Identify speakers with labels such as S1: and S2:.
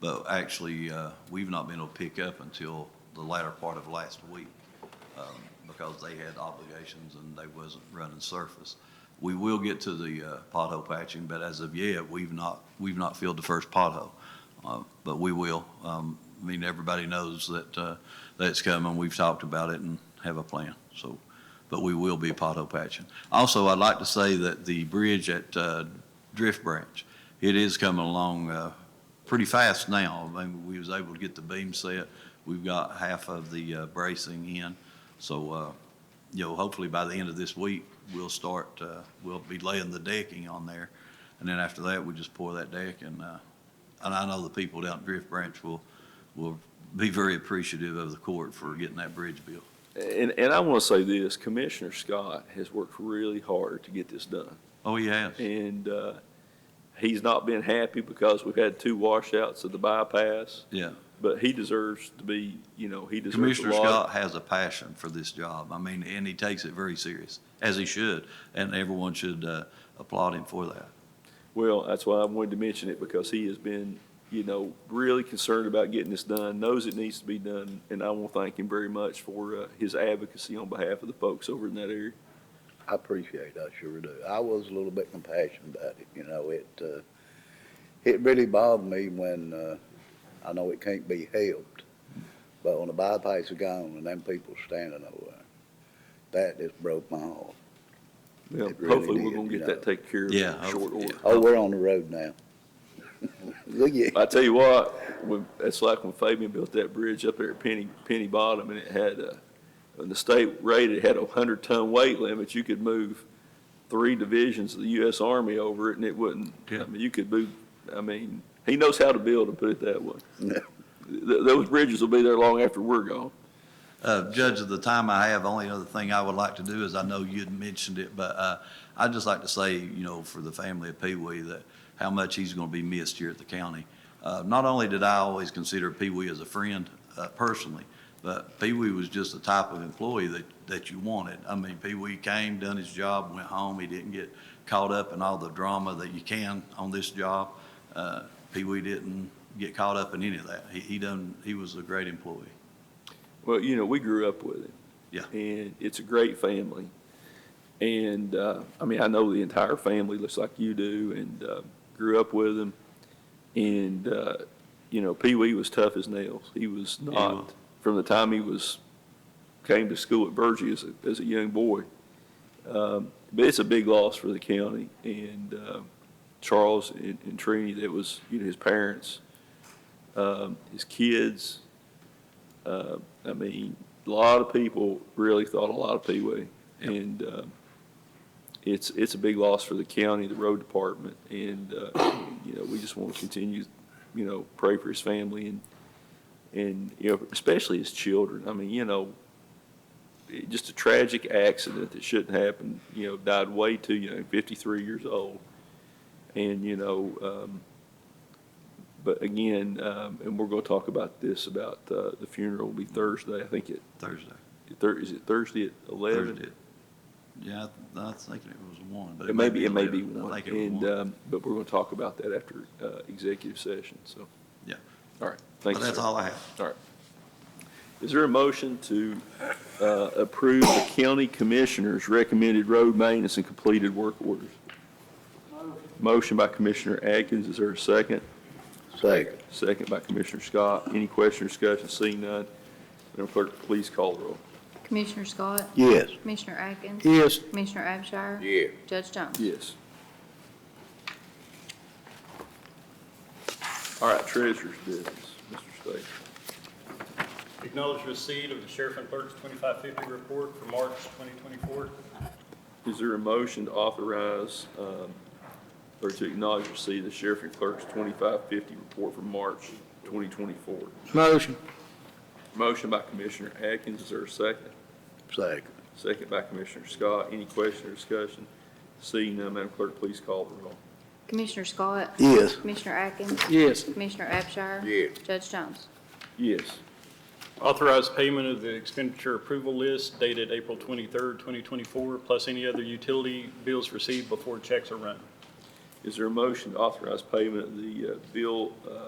S1: But actually, uh, we've not been able to pick up until the latter part of last week um, because they had obligations and they wasn't running surface. We will get to the uh, pothole patching, but as of yet, we've not, we've not filled the first pothole. Uh, But we will. Um, I mean, everybody knows that, uh, that's coming. We've talked about it and have a plan, so. But we will be pothole patching. Also, I'd like to say that the bridge at uh, Drift Branch, it is coming along uh, pretty fast now. I mean, we was able to get the beam set. We've got half of the uh, bracing in. So, uh, you know, hopefully by the end of this week, we'll start, uh, we'll be laying the decking on there. And then after that, we just pour that deck and, uh, and I know the people down at Drift Branch will, will be very appreciative of the court for getting that bridge built.
S2: And, and I want to say this, Commissioner Scott has worked really hard to get this done.
S1: Oh, yes.
S2: And, uh, he's not been happy because we've had two washouts of the bypass,
S1: Yeah.
S2: but he deserves to be, you know, he deserves a
S1: Commissioner
S2: lot.
S1: Scott has a passion for this job. I mean, and he takes it very serious, as he should. And everyone should, uh, applaud him for that.
S2: Well, that's why I wanted to mention it because he has been, you know, really concerned about getting this done, knows it needs to be done. And I want to thank him very much for, uh, his advocacy on behalf of the folks over in that area.
S3: I appreciate it, I sure do. I was a little bit compassionate about it, you know, it, uh, it really bothered me when, uh, I know it can't be helped, but when the bypass is gone and them people standing over there, that just broke my heart.
S2: Well,
S3: It really
S2: hopefully we're
S3: did,
S2: going to
S3: you
S2: get that taken care of
S1: Yeah,
S2: in short
S1: hopefully,
S2: order.
S1: yeah.
S3: Oh, we're on the road now. Look at,
S2: I tell you what, when, it's like when Fabian built that bridge up there at Penny, Penny Bottom, and it had, uh, when the state rated, it had a hundred ton weight limit, you could move three divisions of the US Army over it, and it wouldn't, I
S1: Yeah.
S2: mean, you could move, I mean, he knows how to build, to put it that way.
S3: Yeah.
S2: Th- those bridges will be there long after we're gone.
S1: Uh, Judge, of the time I have, only other thing I would like to do is, I know you'd mentioned it, but, uh, I'd just like to say, you know, for the family of Pee Wee, that how much he's gonna be missed here at the county. Uh, not only did I always consider Pee Wee as a friend, uh, personally, but Pee Wee was just the type of employee that, that you wanted. I mean, Pee Wee came, done his job, went home. He didn't get caught up in all the drama that you can on this job. Uh, Pee Wee didn't get caught up in any of that. He, he done, he was a great employee.
S2: Well, you know, we grew up with him.
S1: Yeah.
S2: And it's a great family. And, uh, I mean, I know the entire family looks like you do and, uh, grew up with him. And, uh, you know, Pee Wee was tough as nails. He was not,
S1: was.
S2: from the time he was, came to school at Burgess as a, as a young boy. Um, but it's a big loss for the county and, uh, Charles and, and Trini, that was, you know, his parents, um, his kids. Uh, I mean, a lot of people really thought a lot of Pee Wee.
S1: Yep.
S2: And uh, it's, it's a big loss for the county, the road department, and, uh, you know, we just want to continue, you know, pray for his family and, and, you know, especially his children. I mean, you know, it- just a tragic accident that shouldn't happen, you know, died way too young, 53 years old. And, you know, um, but again, um, and we're going to talk about this, about uh, the funeral will be Thursday, I think it,
S1: Thursday.
S2: Thur- is it Thursday at 11?
S1: Thursday. Yeah, I I was thinking it was one, but.
S2: It may be, it may be
S1: 11. I
S2: one,
S1: think it was
S2: and,
S1: one.
S2: um, but we're going to talk about that after uh, executive session, so.
S1: Yeah.
S2: All right,
S1: But
S2: thank you,
S1: that's
S2: sir.
S1: all I have.
S2: Is there a motion to uh, approve the county commissioner's recommended road maintenance and completed work orders? Motion by Commissioner Atkins, is there a second?
S3: second,
S2: Second by Commissioner Scott. Any question or discussion? Seeing none, Madam Clerk, please call the roll.
S4: Commissioner Scott?
S3: yes.
S4: Commissioner Atkins?
S3: Yes.
S4: Commissioner Abshire?
S3: Yeah.
S4: Judge Jones?
S2: Yes. All right, treasurer's business, Mr. State.
S5: Acknowledge receipt of the sheriff and clerk's 2550 report for March 2024.
S2: Is there a motion to authorize, um, or to acknowledge receipt of the sheriff and clerk's 2550 report for March 2024?
S3: Motion.
S2: Motion by Commissioner Atkins, is there a second?
S3: Second,
S2: Second by Commissioner Scott. Any question or discussion? Seeing none, Madam Clerk, please call the roll.
S4: Commissioner Scott?
S3: yes.
S4: Commissioner Atkins?
S3: Yes.
S4: Commissioner Abshire?
S3: Yes.
S4: Judge Jones?
S2: Yes.
S5: Authorize payment of the expenditure approval list dated April 23rd, 2024, plus any other utility bills received before checks are run.
S2: Is there a motion to authorize payment of the uh, bill uh,